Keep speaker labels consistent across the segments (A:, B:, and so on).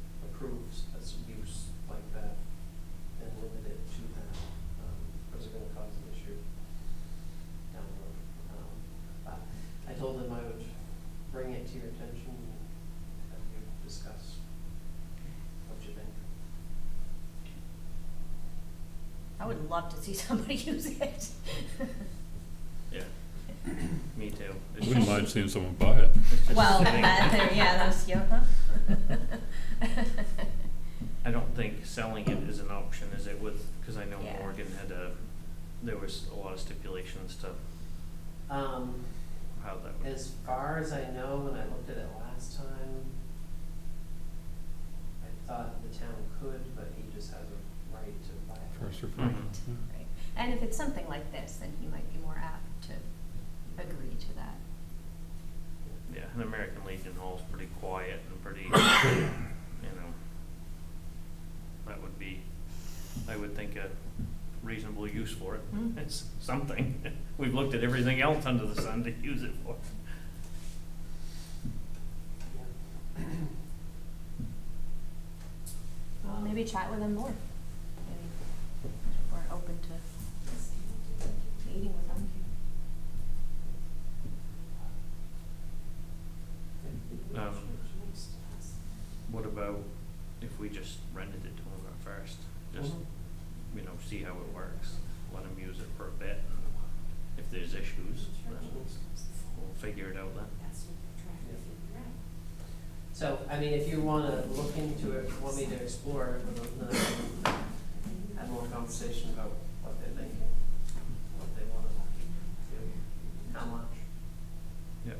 A: Um, Um,
B: would love to see somebody use it.
C: Yeah, me too. It's
D: Wouldn't
C: just-
D: mind seeing someone buy it.
C: it's just
B: Well,
C: sitting-
B: that, there, yeah, that's, yeah.
C: I don't think selling it is an option, is it with, because I know
B: Yeah.
C: Morgan had a, there was a lot of stipulations to
A: Um,
C: how that would.
A: as far as I know, when I looked at it last time, I thought the town could, but he just has a right to buy it.
D: First or
B: Right,
D: first. yeah.
B: right. And if it's something like this, then he might be more apt to agree to that.
C: Yeah, and American Legion Hall's pretty quiet and pretty, you know, that would be, I would think a reasonable use for it.
B: Mm.
C: It's something. We've looked at everything else under the sun to use it for.
A: Yeah.
B: Well,
A: Um,
B: maybe chat with him more. Maybe we're open to meeting with him.
C: Um, What about if we just rented it to him at first? Just,
A: Mhm.
C: you know, see how it works, let him use it for a bit. and If there's issues, then we'll figure it out then.
A: So, I mean, if you wanna look into it, want me to explore it with them, then have more conversation about what they're thinking, what they wanna do, how much,
C: Yep.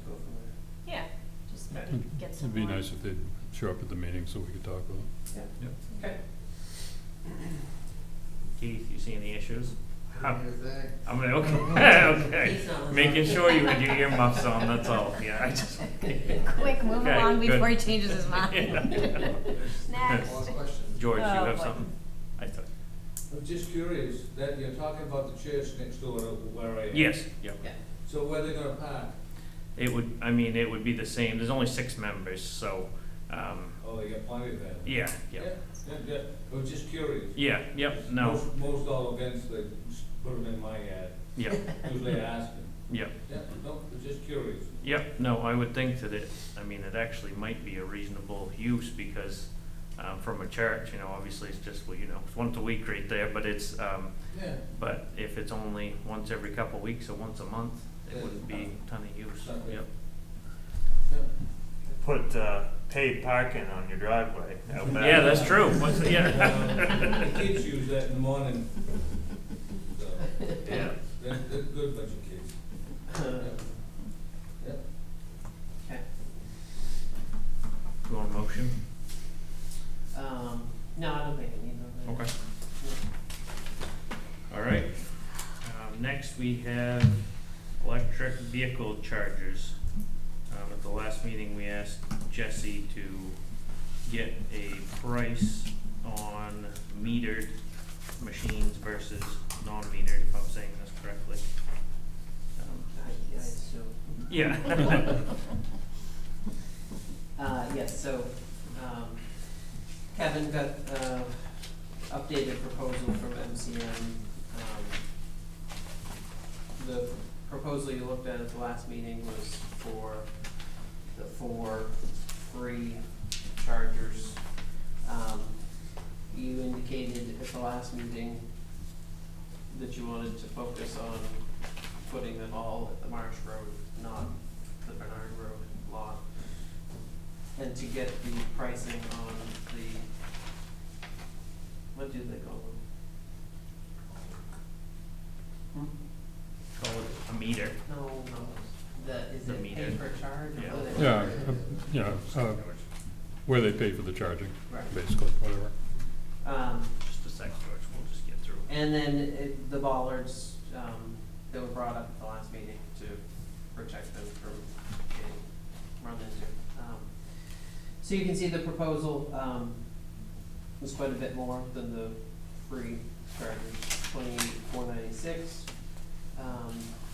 A: and go from there.
B: Yeah, just
A: Okay.
B: maybe get some
D: It'd be
B: more-
D: nice if they'd show up at the meeting so we could talk with them.
C: Yep.
A: Okay.
C: Keith, you see any issues? How-
E: Your thing.
C: I'm like, okay, okay.
A: He's not
C: Making
A: listening.
C: sure you had your earmuffs on, that's all. Yeah, I just.
B: Quick, move
C: Okay,
B: along
C: good.
B: before he changes his
C: Yeah.
B: mind. Next.
E: Last question.
C: George, you
B: Oh,
C: have
B: boy.
C: something? I thought,
E: I'm just curious, that you're talking about the church next door over where I am.
C: yes, yeah.
A: Yeah.
E: So where they gonna park?
C: It would, I mean, it would be the same. There's only six members, so, um,
E: Oh, they got plenty of that.
C: yeah, yeah.
E: Yeah, yeah, I was just curious.
C: Yeah, yep, no,
E: Most, most all events, they s- put them in my yard,
C: yeah,
E: usually I ask them.
C: yeah.
E: Yeah, no, I'm just curious.
C: Yep, no, I would think that it, I mean, it actually might be a reasonable use because, um, from a church, you know, obviously it's just, well, you know, it's once a week right there, but it's, um,
E: Yeah,
C: but if it's only once every couple of weeks or once a month, it wouldn't be a ton of use,
E: Not really.
C: yep.
E: yeah.
F: put uh, paid parking on your driveway. out back.
C: Yeah, that's true, What's-
E: Um, The
C: yeah.
E: kids use that in the morning. So,
C: Yeah.
E: they're, they're good bunch of kids. Yeah.
A: Okay,
C: You want a motion?
A: um, no, I don't think I need one.
C: Okay. All right. Um, next, we have electric vehicle chargers. Um, at the last meeting, we asked Jesse to get a price on metered machines versus non-metered, if I'm saying this correctly. Um,
A: I, I assume.
C: Yeah.
A: Uh, yes, so, um, Kevin got, uh, updated proposal from MCM, um, the proposal you looked at at the last meeting was for the four free chargers. Um, you indicated at the last meeting that you wanted to focus on putting them all at the Marsh Road, not the Bernard Road lot and to get the pricing on the, what do they call them?
C: Call it a meter.
A: No, no, the, is
C: The
A: it
C: meter.
A: pay per charge
C: Yeah.
A: or what? is it?
D: Yeah, uh, yeah, uh, where they pay for the charging,
A: Right,
D: basically, whatever.
A: um,
C: Just a sec, George, we'll just get through.
A: and then it, the bollards, um, that were brought up at the last meeting to protect them from getting run into. Um, So you can see the proposal, um, was quite a bit more than the free charges, twenty-eight, four ninety-six. Um,